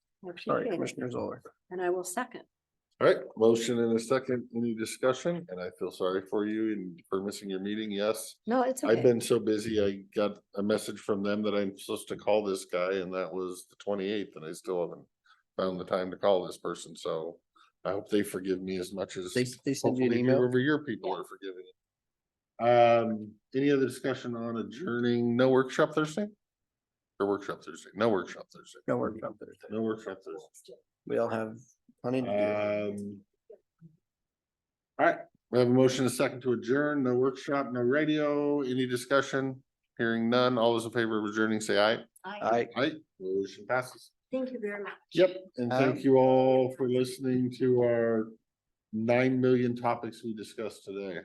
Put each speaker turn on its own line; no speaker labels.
Motion
Sorry,
carries.
Commissioner Zoller.
And I will second.
All right, motion and a second, any discussion? And I feel sorry for you and for missing your meeting, yes.
No, it's
I've
okay.
been so busy, I got a message from them that I'm supposed to call this guy and that was the twenty-eighth and I still haven't found the time to call this person, so I hope they forgive me as much as
They, they send you an
hopefully
email.
whoever your people are forgiving. Um, any other discussion on adjourning? No workshop Thursday? Or workshop Thursday? No workshop Thursday.
No workshop Thursday.
No workshop Thursday.
We all have plenty to
Um. All right, we have a motion, a second to adjourn, no workshop, no radio, any discussion? Hearing none, all those in favor of adjourning, say aye.
do. I,
Aye. Motion passes.
Thank you very much.
Yep, and thank you all for listening to our nine million topics we discussed today.